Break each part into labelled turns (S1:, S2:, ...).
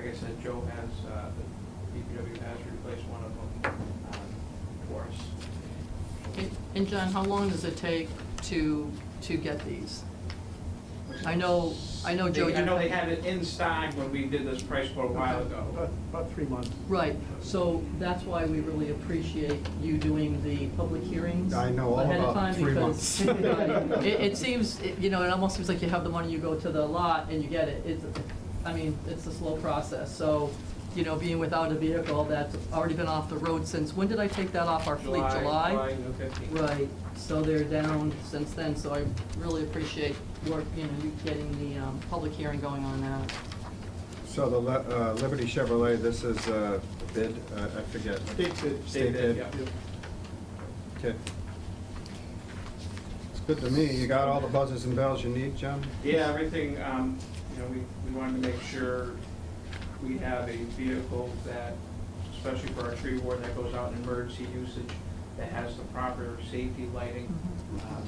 S1: that Joe has, uh, the DPW has replaced one of them uh, for us.
S2: And- And John, how long does it take to, to get these? I know, I know, Joe,
S1: They-
S2: you.
S1: I know they had it in stock when we did this price quote a while ago.
S3: About, about three months.
S2: Right, so that's why we really appreciate you doing the public hearings.
S4: I know all
S2: ahead of
S4: about
S2: time
S4: three
S2: because,
S4: months.
S2: uh, It, it seems, it- you know, it almost seems like you have the money, you go to the lot and you get it. It's, I mean, it's a slow process, so, you know, being without a vehicle that's already been off the road since, when did I take that off our fleet?
S1: July the 15th.
S2: Right, so they're down since then, so I really appreciate your, you know, you getting the, um, public hearing going on that.
S4: So the Le- uh, Liberty Chevrolet, this is a bid, uh, I forget.
S3: State bid.
S4: State
S1: They did,
S4: bid.
S1: yeah.
S4: Okay. It's good to me. You got all the buzzers and bells you need, John?
S1: Yeah, everything, um, you know, we, we wanted to make sure we have a vehicle that, especially for our tree ward, that goes out in emergency usage, that has the proper safety lighting.
S2: Mm-hmm.
S1: Um,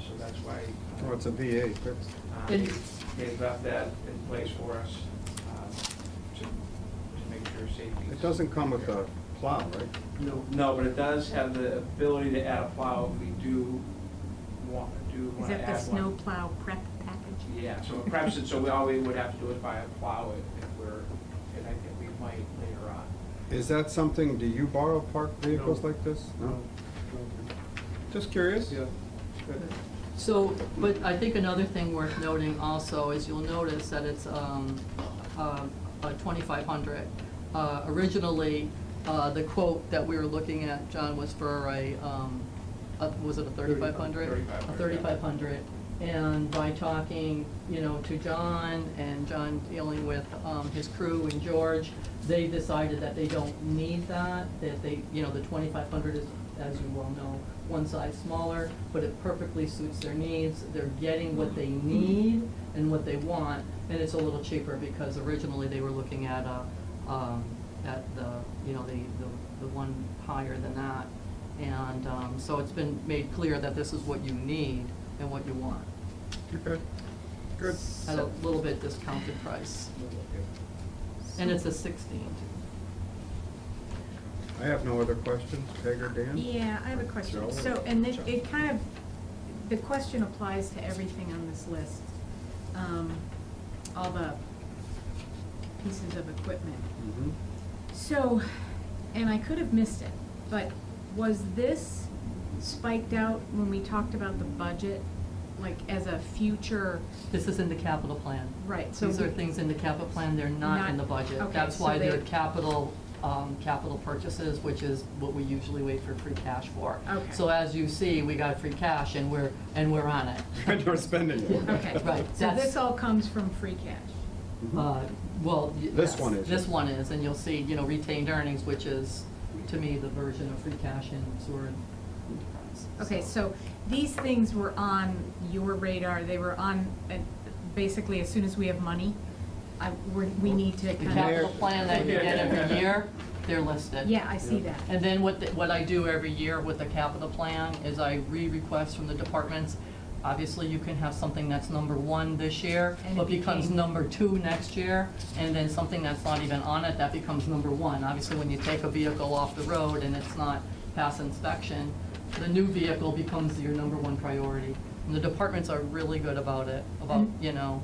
S1: So that's why. uh,
S4: Oh, it's a V8.
S1: Uh,
S2: And-
S1: They left that in place for us um, to to make sure safety. is-
S4: It doesn't come with a plow, right?
S1: No, no, but it does have the ability to add a plow if we do want, do
S5: Is
S1: want to
S5: that
S1: add
S5: the
S1: one.
S5: snow plow prep package?
S1: Yeah, so it preps it, so we, all we would have to do is buy a plow if if we're, and I think we might later on.
S4: Is that something, do you borrow parked vehicles
S3: No.
S4: like this? No?
S3: No, no,
S4: Just curious?
S3: Yeah. Good.
S2: So, but I think another thing worth noting also is you'll notice that it's, um, uh, twenty-five hundred. Uh, originally, uh, the quote that we were looking at, John, was for a, um, a- was it a thirty-five hundred? A
S1: 3500, yeah.
S2: thirty-five hundred. And by talking, you know, to John and John dealing with, um, his crew and George, they decided that they don't need that, that they, you know, the twenty-five hundred is, as you well know, one size smaller, but it perfectly suits their needs. They're getting what they need and what they want, and it's a little cheaper because originally they were looking at a, um, at the, you know, the, the, the one higher than that. And, um, so it's been made clear that this is what you need and what you want,
S4: Okay. Good.
S2: at a little bit discounted price. And it's a sixteen.
S4: I have no other questions. Peg or Dan?
S5: Yeah, I have a question.
S4: Joe?
S5: So, and it,
S4: Joe.
S5: it kind of, the question applies to everything on this list. Um, all the pieces of equipment.
S4: Mhm.
S5: So, and I could have missed it, but was this spiked out when we talked about the budget? Like as a future,
S2: This is in the capital plan.
S5: right, so.
S2: These are
S5: we-
S2: things in the capital plan, they're not in the
S5: Not-
S2: budget.
S5: okay,
S2: That's
S5: so
S2: why they're
S5: they-
S2: capital, um, capital purchases, which is what we usually wait for free cash for.
S5: Okay.
S2: So as you see, we got free cash and we're, and we're on it.
S4: And we're spending it.
S5: Okay.
S2: Right,
S5: So
S2: that's-
S5: this all comes from free cash?
S4: Mhm.
S2: Uh, Well, y-
S4: This
S2: yes,
S4: one is.
S2: This one is, and you'll see, you know, retained earnings, which is, to me, the version of free cash in sewer and enterprise.
S5: Okay, so these things were on your radar, they were on, uh, basically, as soon as we have money, I, we're, we need to
S2: The
S5: kind of.
S2: capital plan that you get every year, they're listed.
S5: Yeah, I see that.
S2: And then what, the- what I do every year with the capital plan is I re-request from the departments. Obviously, you can have something that's number one this year,
S5: And it
S2: but becomes
S5: became-
S2: number two next year, and then something that's not even on it, that becomes number one. Obviously, when you take a vehicle off the road and it's not past inspection, the new vehicle becomes your number one priority. And the departments are really good about it, about,
S5: Mm.
S2: you know.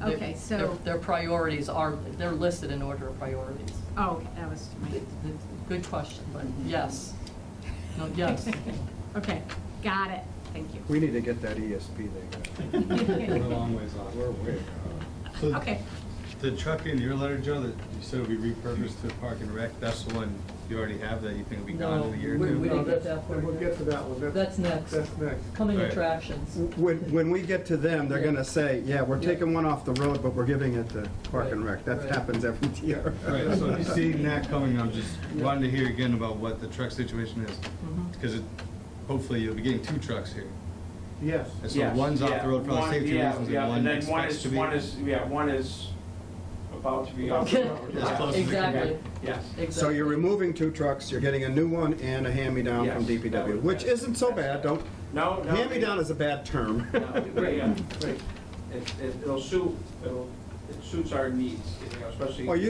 S2: their-
S5: Okay, so-
S2: their- Their priorities are, they're listed in order of priorities.
S5: Oh, okay, that was my,
S2: Good question, but yes. No, yes.
S5: okay, got it, thank you.
S4: We need to get that E ESP thing. We're a long ways off. We're way off.
S6: So
S5: Okay,
S6: The truck in your letter, Joe, that you said would be repurposed to Park and Rec, that's the one you already have that you think will be gone in a year or
S2: No, we- we
S6: two?
S2: didn't get
S3: that's-
S2: that for
S3: and We'll
S2: you.
S3: get to that one.
S2: That's next.
S3: That's next.
S2: Coming
S6: Right.
S2: attractions.
S4: When, when we get to them, they're gonna say, yeah, we're taking one off the road, but we're giving it to Park and Rec. That
S2: Right.
S4: happens every year.
S6: Right, so if you see that coming, I'm just wanting to hear again about what the truck situation is.
S2: Mhm.
S6: Because it, hopefully you'll be getting two trucks here.
S3: Yes.
S6: And so
S1: Yes,
S6: one's off
S1: yeah,
S6: the road for
S1: one-
S6: the safety
S1: yeah,
S6: reasons
S1: yeah,
S6: and one
S1: then one
S6: expects
S1: is-
S6: to be.
S1: One is, yeah, one is about to be off the road.
S6: As close as it can
S2: Exactly.
S1: Yes.
S4: So you're removing two trucks, you're getting a new one and a hand-me-down from
S1: Yes.
S4: DPW, which isn't so bad, don't,
S1: No, no.
S4: hand-me-down is a bad term.
S1: No, yeah, right. It, it- it'll suit, it'll, it suits our needs, you know, especially.
S4: Well, you